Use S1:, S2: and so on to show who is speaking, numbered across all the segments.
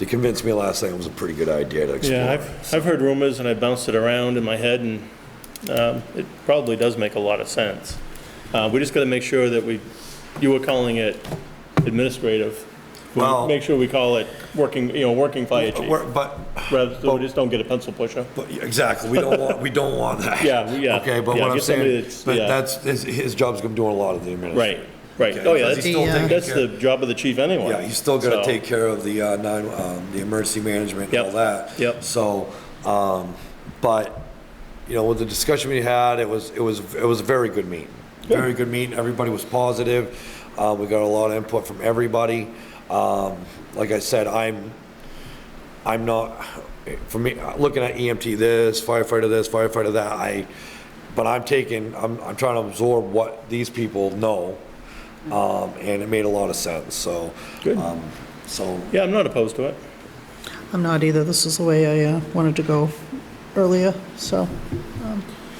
S1: You convinced me last night it was a pretty good idea to
S2: Yeah,
S1: explore.
S2: I've, I've heard rumors and I bounced it around in my head and um, it probably does make a lot of sense. Uh, We just got to make sure that we, you were calling it administrative. We'll
S1: Well-
S2: Make sure we call it working, you know, working fire chief,
S1: We're- But,
S2: rather so we just don't get a pencil pusher.
S1: but, exactly, we don't want, we don't want that.
S2: Yeah, we- yeah.
S1: Okay, but
S2: Yeah,
S1: what I'm
S2: get somebody
S1: saying,
S2: that's-
S1: but
S2: yeah.
S1: that's, his, his job's gonna do a lot of the administration.
S2: Right, right. Oh, yeah,
S1: Because he's
S2: that's,
S1: still taking
S2: that's
S1: care-
S2: the job of the chief anyway.
S1: Yeah, he's still gonna
S2: So,
S1: take care of the, uh, nine, um, the emergency management and
S2: Yep,
S1: all that.
S2: yep.
S1: So, um, but, you know, with the discussion we had, it was, it was, it was a very good meeting. Very good meeting, everybody was positive, uh, we got a lot of input from everybody. Um, like I said, I'm, I'm not, for me, looking at EMT this, firefighter this, firefighter that, I, but I'm taking, I'm, I'm trying to absorb what these people know. Um, and it made a lot of sense, so.
S2: Good.
S1: um, So,
S2: Yeah, I'm not opposed to it.
S3: I'm not either. This is the way I uh, wanted to go earlier, so.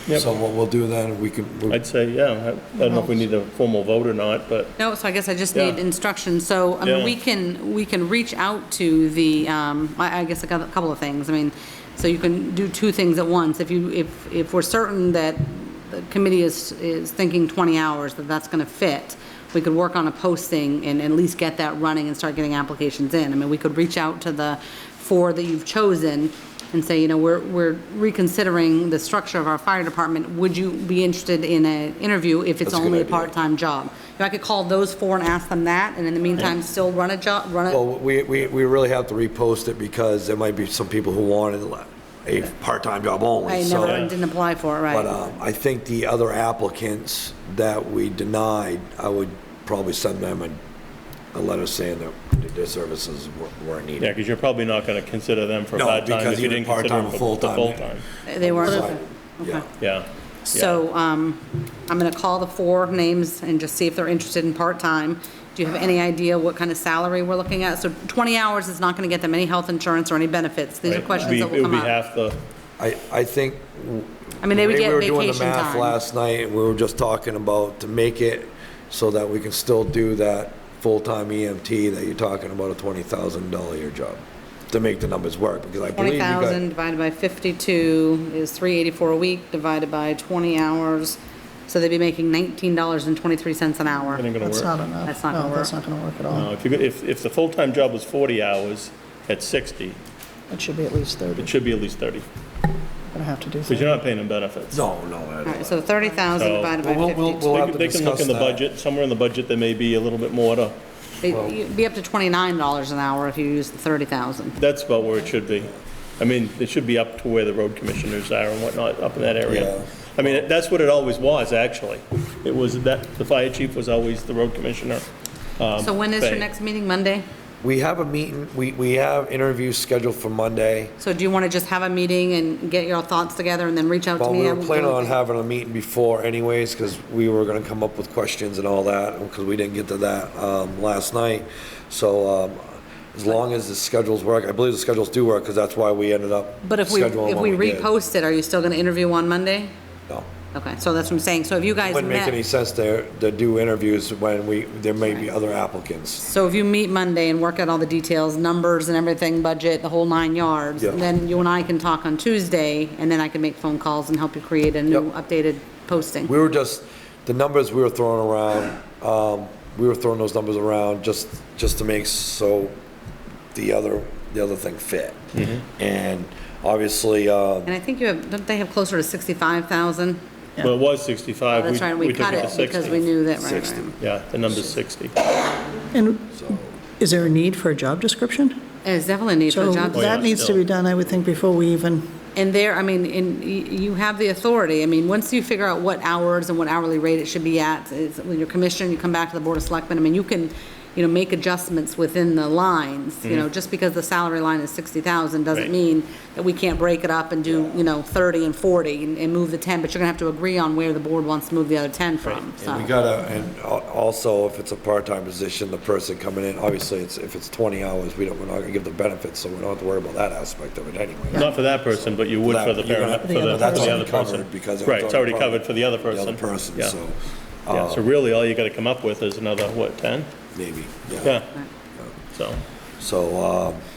S2: Yep.
S1: so what we'll do then, we can, we-
S2: I'd say, yeah, I I don't know if we need a formal vote or not, but
S4: No, so I guess I just
S2: Yeah.
S4: need instruction. So, I
S2: Yeah.
S4: mean, we can, we can reach out to the, um, I I guess a cou- couple of things. I mean, so you can do two things at once. If you, if, if we're certain that the committee is, is thinking 20 hours, that that's going to fit, we could work on a posting and at least get that running and start getting applications in. I mean, we could reach out to the four that you've chosen and say, you know, we're, we're reconsidering the structure of our fire department. Would you be interested in an interview if it's
S1: That's a good
S4: only a
S1: idea.
S4: part-time full-time job. You know, I could call those four and ask them that, and in the meantime, still run a job, run
S1: well,
S4: a,
S1: we, we, we really have to repost it because there might be some people who wanted a part-time job
S4: I
S1: only, so.
S4: never, didn't apply for it,
S1: But
S4: right?
S1: um, I think the other applicants that we denied, I would probably send them a, a letter saying that their services were- weren't
S2: yeah,
S1: needed.
S2: because you're probably not going to consider them for
S1: No,
S2: part-time
S1: because
S2: if you
S1: even
S2: didn't consider
S1: part-time
S2: them
S1: or
S2: for the
S1: full-time, yeah.
S2: full-time.
S4: They weren't,
S1: Right.
S4: okay.
S1: Yeah.
S2: Yeah.
S4: So, um, I'm gonna call the four names and just see if they're interested in part-time. Do you have any idea what kind of salary we're looking at? So twenty hours is not gonna get them any health insurance or any benefits. These are
S2: Right.
S4: questions
S2: Be-
S4: that will come
S2: It would be
S4: up.
S2: half the,
S1: I, I think. w-
S4: I mean, they would
S1: we
S4: get
S1: were doing the
S4: vacation
S1: math
S4: time.
S1: Last night, and we were just talking about to make it so that we can still do that full-time EMT that you're talking about, a twenty thousand dollar year job, to make the numbers work, because I believe
S4: Twenty
S1: you got.
S4: thousand divided by fifty-two is three eighty-four a week, divided by twenty hours. So they'd be making nineteen dollars and twenty-three cents an hour.
S2: it ain't going to
S3: That's
S2: work.
S3: not enough.
S4: That's not gonna
S3: No, that's
S4: work.
S3: not going to work at all.
S2: Uh, If you, go- if, if the full-time job was 40 hours at 60,
S3: It should be at least 30.
S2: it should be at least 30,
S3: We're going to have to do
S2: because
S3: that.
S2: you're not paying them benefits.
S1: No, no. I
S4: All right,
S1: don't-
S4: so 30,000
S2: So-
S4: divided
S1: Well, we'll-
S4: by
S1: we'll-
S2: They
S1: have
S2: can-
S1: to
S2: they can look in the
S1: discuss that.
S2: budget, somewhere in the budget, there may be a little bit more to,
S4: 52. It'd be up to 29 dollars an hour if you use the 30,000.
S2: that's about where it should be. I mean, it should be up to where the road commissioners are and whatnot, up in that
S1: Yeah.
S2: area. I mean, that's what it always was, actually. It was that, the fire chief was always the road commissioner.
S1: Um,
S4: So when is your
S2: okay.
S4: next meeting, Monday?
S1: We have a meeting, we, we have interviews scheduled for Monday.
S4: So do you want to just have a meeting and get your thoughts together and then reach out to
S1: Well,
S4: me?
S1: we
S4: I
S1: were
S4: will-
S1: planning on having a meeting before anyways, because we were gonna come up with questions and all that, because we didn't get to that, um, last night. So, um, as long as the schedules work, I believe the schedules do work, because that's why we ended up
S4: But if we,
S1: scheduling
S4: if
S1: what
S4: we
S1: did.
S4: repost it, are you still going to interview on Monday?
S1: No.
S4: Okay, so that's what I'm saying. So if you guys
S1: Wouldn't make any
S4: met,
S1: sense to, to do interviews when we, there may be other applicants.
S4: so if you meet Monday and work out all the details, numbers and everything, budget, the whole nine yards,
S1: Yeah.
S4: then you and I can talk on Tuesday and then I can make phone calls and help you create a new updated posting.
S1: We were just, the numbers we were throwing around, um, we were throwing those numbers around just, just to make so the other, the other thing fit.
S2: Mm-hmm.
S1: And obviously, uh,
S4: And I think you have, don't they have closer to 65,000?
S2: Well, it was 65.
S4: Oh, That's right, we
S2: Uh, took
S4: cut
S2: to
S4: it because
S2: 60.
S4: we knew that, right,
S1: 60.
S4: right.
S2: Yeah, the number's 60.
S3: And is there a need for a job description?
S4: It's definitely a need for a job.
S3: So
S2: Oh, yeah,
S3: that needs to
S2: still.
S3: be done, I would think, before we even,
S4: And there, I mean, and y- you have the authority, I mean, once you figure out what hours and what hourly rate it should be at, it's, when you're commissioned, you come back to the Board of Selectmen, I mean, you can, you know, make adjustments within the lines, you know, just because the salary line is 60,000
S2: Right.
S4: doesn't mean that we can't break it up and do, you know, 30 and 40 and, and move the 10, but you're gonna have to agree on where the board wants to move the other 10 from, so.
S1: and we gotta, and al- also if it's a part-time position, the person coming in, obviously, it's, if it's twenty hours, we don't, we're not gonna give the benefits, so we don't have to worry about that aspect of it anyway.
S2: Not for that person, but you would for the
S1: That- you're gonna-
S2: paramedic, for the,
S1: but that's
S2: for
S1: already
S2: the other person.
S1: covered because it was
S2: Right, it's already
S1: part of
S2: covered for the other
S1: The
S2: person.
S1: other person,
S2: Yeah.
S1: so, uh,
S2: Yeah, so really, all you gotta come up with is another, what, 10?
S1: maybe,
S2: Yeah, so,
S1: So, um,